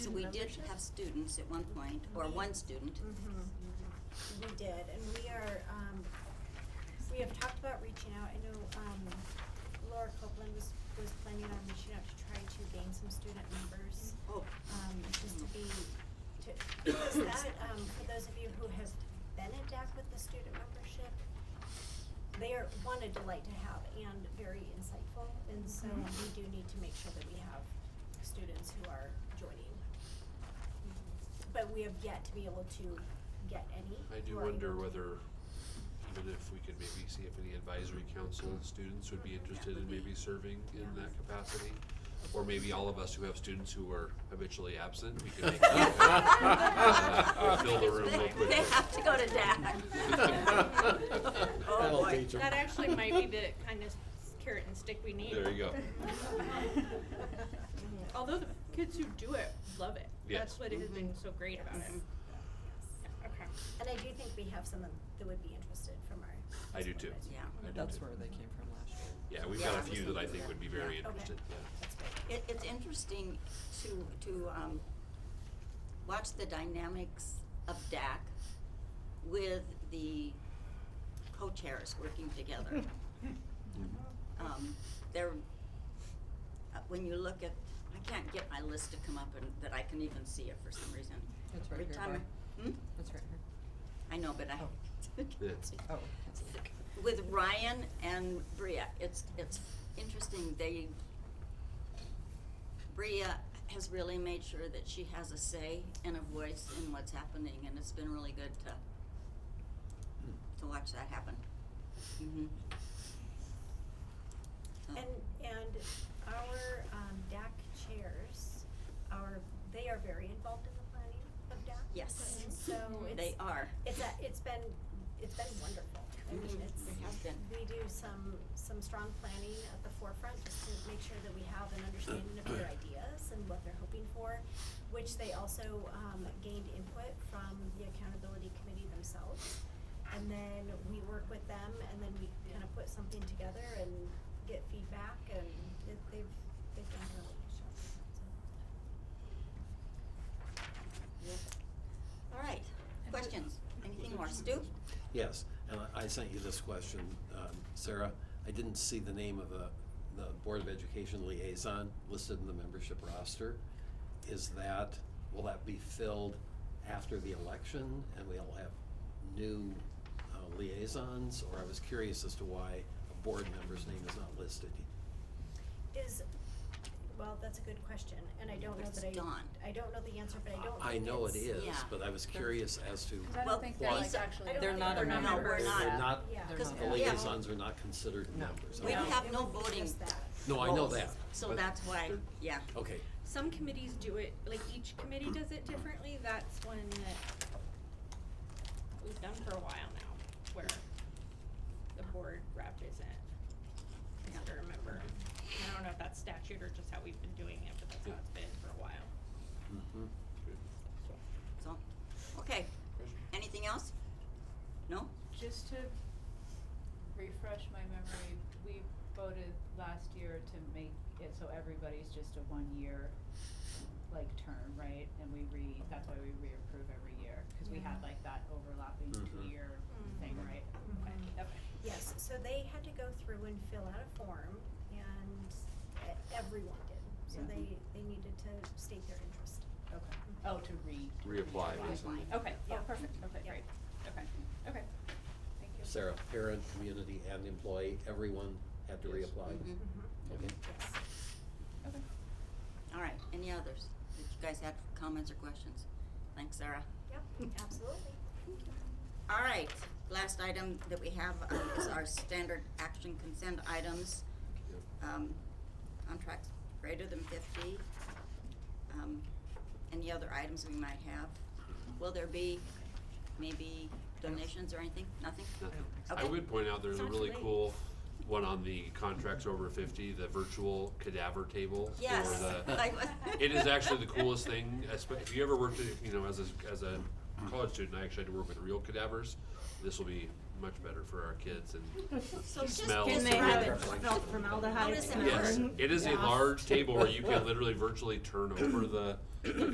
So we did have students at one point, or Mm-hmm. one student. Mm-hmm. We did, and we are, um, we have talked about reaching out, I know, um, Laura Copeland was, was planning on reaching out to try to gain some student members. Oh. Um, just to be, to, because that, um, for those of you who has been at DAC with the student membership, they are, one, a delight to have and very insightful, and so we do need to make sure that we have students who are joining. But we have yet to be able to get any. I do who are wonder able to- whether, even if we could maybe see if any advisory council students would be interested in maybe serving in that capacity. Or maybe all of us who have students who are habitually absent, we could make that happen. We'll Fill the room real They quick. have to go to DAC. That'll Oh, boy. teach 'em. That actually might be the kind of carrot and stick we need. There you go. Oh, Although the kids who do it love it. Yes. That's what has been so great about mm-hmm. it. Yes. Yeah, Okay. And I do think we have some that would be interested from our. I do too. Yeah. I do That's too. where they came from last year. Yeah, we've got Yeah, a I was few that I thinking think would be that. very Yeah. Okay. interested, yeah. That's great. It, it's interesting to, to, um, watch the dynamics of DAC with the co-chairs working together. Mm-hmm. Um, they're, uh, when you look at, I can't get my list to come up and, that I can even see it for some reason. It's right Every here, time I- Hmm? That's right here. I know, but I. Oh. Oh, that's it. With Ryan and Bria, it's, it's interesting, they, Bria has really made sure that she has a say and a voice in what's happening, and it's been really good to, to watch that happen. Mm-hmm. And, oh. and our, um, DAC chairs are, they are very involved in the planning of DAC. Yes. And so They it's, are. it's a, it's been, it's been wonderful. I mean, Mhm. it's, It has been. we do some, some strong planning at the forefront just to make sure that we have an understanding of their ideas and what they're hoping for, which they also, um, gained input from the accountability committee themselves. And then we work with them and then we kind of put something together and get feedback and it, they've, they've done really good job, so. All right, questions? Anything more? Stu? Yes, and I- I sent you this question, um, Sarah. I didn't see the name of the, the Board of Education liaison listed in the membership roster. Is that, will that be filled after the election and we'll have new uh, liaisons? Or I was curious as to why a board member's name is not listed. Is, well, that's a good question, and I don't know It's that I, Dawn. I don't know the answer, but I don't I think know it it's- is, yeah. but I was curious as to, Because I Well, don't think they're why- like actually. I don't They're think not they're a not member. members. We're they're not. not, Yeah. Because- the yeah. liaisons are not considered No. members. We Okay. No, have it no would be voting. just that. No, I know Roles. that. So but that's why, they're- yeah. Okay, Some committees do it, like each committee does it differently. That's one that we've done for a while now, where the board rep isn't considered a member. I don't know if that's statute or just how we've been doing it, but that's how it's been for a while. mhm. So, okay. Anything else? No? Just to refresh my memory, we voted last year to make it so everybody's just a one-year, like, term, right? And we re, that's why we reapprove every year, cause we had like that overlapping Mhm. two-year Mm-hmm. thing, right? Okay, Mm-hmm. Mhm. okay. Yes, so they had to go through and fill out a form, and e- everyone did, so Mm-hmm. Yeah. they, they needed to state their interest. Okay. Oh, to re. Reapply, basically. Okay, oh, Yeah. perfect, okay, great, okay, okay, thank you. Sarah, parent, community, and employee, everyone had to Yes. reapply? Mhm. Mm-hmm. Okay. Yes. Okay. All right, any others? Did you guys have comments or questions? Thanks, Sarah. Yep, absolutely. All right, last item that we have uh, is our standard action consent items. Yep. Um, contracts greater than fifty. Um, any other items we might have? Will there be maybe donations or anything? Nothing? Nothing. Okay. I would point out there's a Sounds really great. cool one on the contracts over fifty, the virtual cadaver table. Yes. Or the, Like- it is actually the coolest thing. espe- If you ever worked, at- you know, as a, as a college student, I actually had to work with real cadavers. This will be much better for our kids and So just describe smells. Can they have it. it spelled formaldehyde? How does that in work? Yes, urine? it is a Yeah. large table where you can literally virtually turn over the